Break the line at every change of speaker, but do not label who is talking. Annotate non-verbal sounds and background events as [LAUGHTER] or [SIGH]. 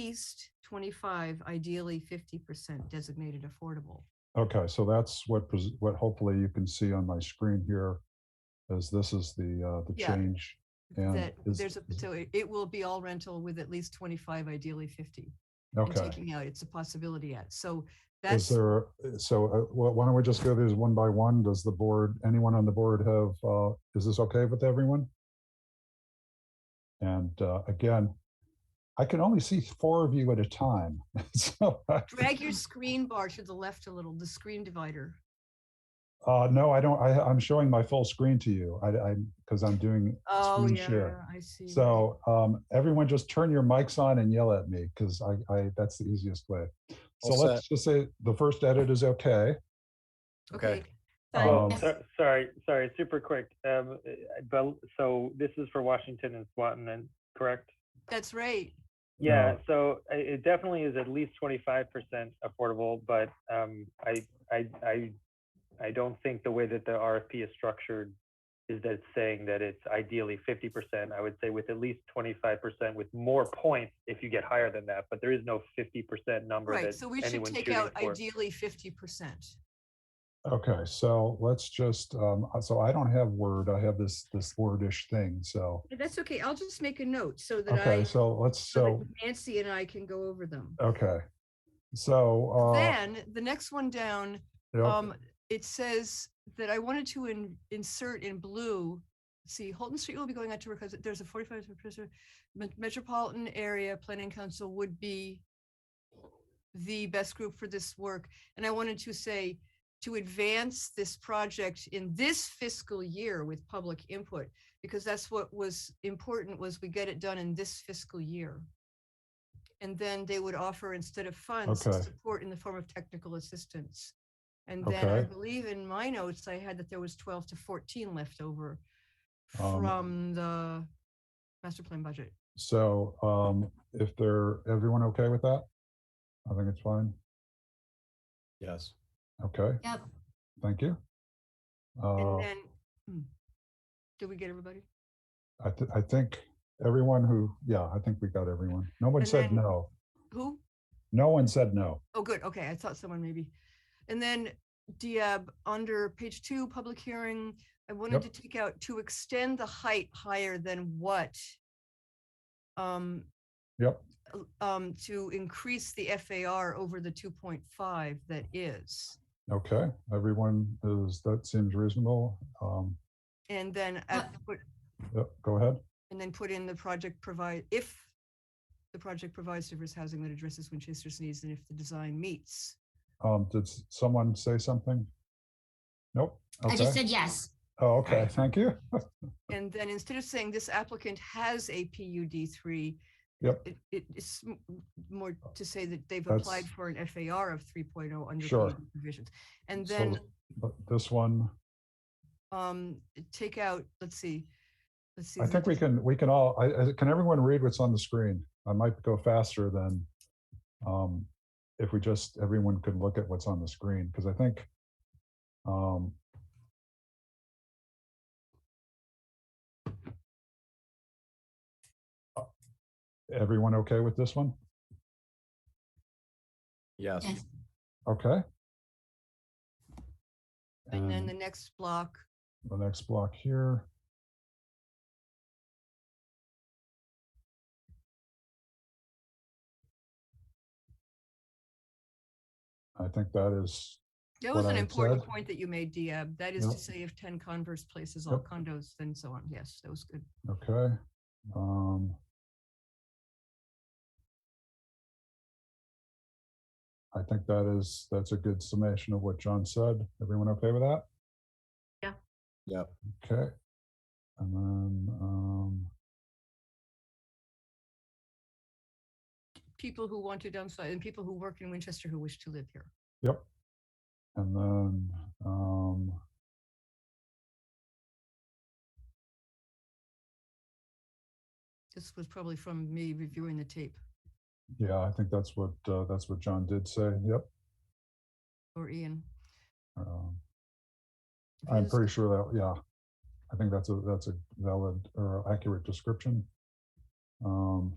least twenty-five, ideally fifty percent designated affordable.
Okay, so that's what, pres- what hopefully you can see on my screen here is this is the, uh, the
Yeah.
change. Yeah,
That
is-
there's a, so it- it will be all rental with at least twenty-five, ideally fifty. and
Okay.
Taking out, it's a possibility at, so
Is
that's,
there, so uh, wh- why don't we just go these one by one? Does the board, anyone on the board have, uh, is this okay with everyone? And uh, again, I can only see four of you at a time. [LAUGHS] So,
drag your screen bar to the left a little, the screen divider.
uh, no, I don't, I, I'm showing my full screen to you. I, I, because I'm doing
Oh,
screen
yeah,
share.
I see.
So um, everyone just turn your mics on and yell at me because I, I, that's the easiest way. So
All
let's just say the first edit is okay.
Okay.
Okay.
Um,
Yes.
So- Sorry, sorry, super quick. Um, uh, But, so this is for Washington and Swanton, and correct?
That's right.
Yeah, so i- it definitely is at least twenty-five percent affordable, but um, I, I, I, I don't think the way that the RFP is structured is that it's saying that it's ideally fifty percent. I would say with at least twenty-five percent with more points if you get higher than that, but there is no fifty percent number
Right,
that
so we should
anyone's
take
shooting
out
for.
ideally fifty percent.
Okay, so let's just, um, so I don't have Word, I have this, this Wordish thing, so.
That's okay, I'll just make a note so that I,
Okay,
so
so let's,
that
so,
Nancy and I can go over them.
okay. So, uh,
Then, the next one down,
yeah,
um, it says that I wanted to in, insert in blue. See, Holton Street will be going out to work because there's a forty-five percent metropolitan area planning council would be the best group for this work. And I wanted to say to advance this project in this fiscal year with public input, because that's what was important was we get it done in this fiscal year. And then they would offer instead of funds,
Okay.
support in the form of technical assistance. And then I
Okay.
believe in my notes, I had that there was twelve to fourteen left over
Um,
from the master plan budget.
so, um, if they're, everyone okay with that? I think it's fine,
Yes.
okay,
Yep,
thank you. Uh,
And then, hmm, did we get everybody?
I, thi- I think everyone who, yeah, I think we got everyone. No one
And
said
then-
no,
Who?
no one said no.
Oh, good. Okay. I thought someone maybe. And then Diab, under page two, public hearing, I wanted to take out to extend the height higher than what? Um,
Yep,
l- um, to increase the FAR over the two point five that is.
okay, everyone is, that seems reasonable. Um,
And then, at the foot-
yep, go ahead.
and then put in the project provide, if the project provides diverse housing that addresses Winchester's needs and if the design meets.
Um, did s- someone say something? Nope.
I just
Okay.
said yes.
Oh,
[LAUGHS]
okay. Thank you.
And then instead of saying this applicant has a PUD three.
Yep. Uh,
It, it- it's m- m- more to say that they've applied
That's-
for an FAR of three oh under
Sure.
PUD provisions. And
So-
then,
But this one,
um, take out, let's see, let's see.
I
is it
think we
just-
can, we can all, I, I- can everyone read what's on the screen? I might go faster than, um, if we just, everyone could look at what's on the screen, because I think, um, uh, everyone okay with this one?
Yes.
Yes.
Okay.
And then the next block,
the next block here. I think that is,
that
what
was an
I had
important
said.
point that you made, Diab. That is
Yep.
to say if ten Converse places all
Yep.
condos, then so on. Yes, that was good.
okay. Um I think that is, that's a good summation of what John said. Everyone okay with that?
Yep.
Okay. And then, um,
People who want to downsize and people who work in Winchester who wish to live here.
Yep. And then, um,
This was probably from me reviewing the tape.
yeah, I think that's what, uh, that's what John did say. Yep.
or Ian.
Um,
if
I'm
his-
pretty sure that, yeah. I think that's a, that's a valid or accurate description. Um,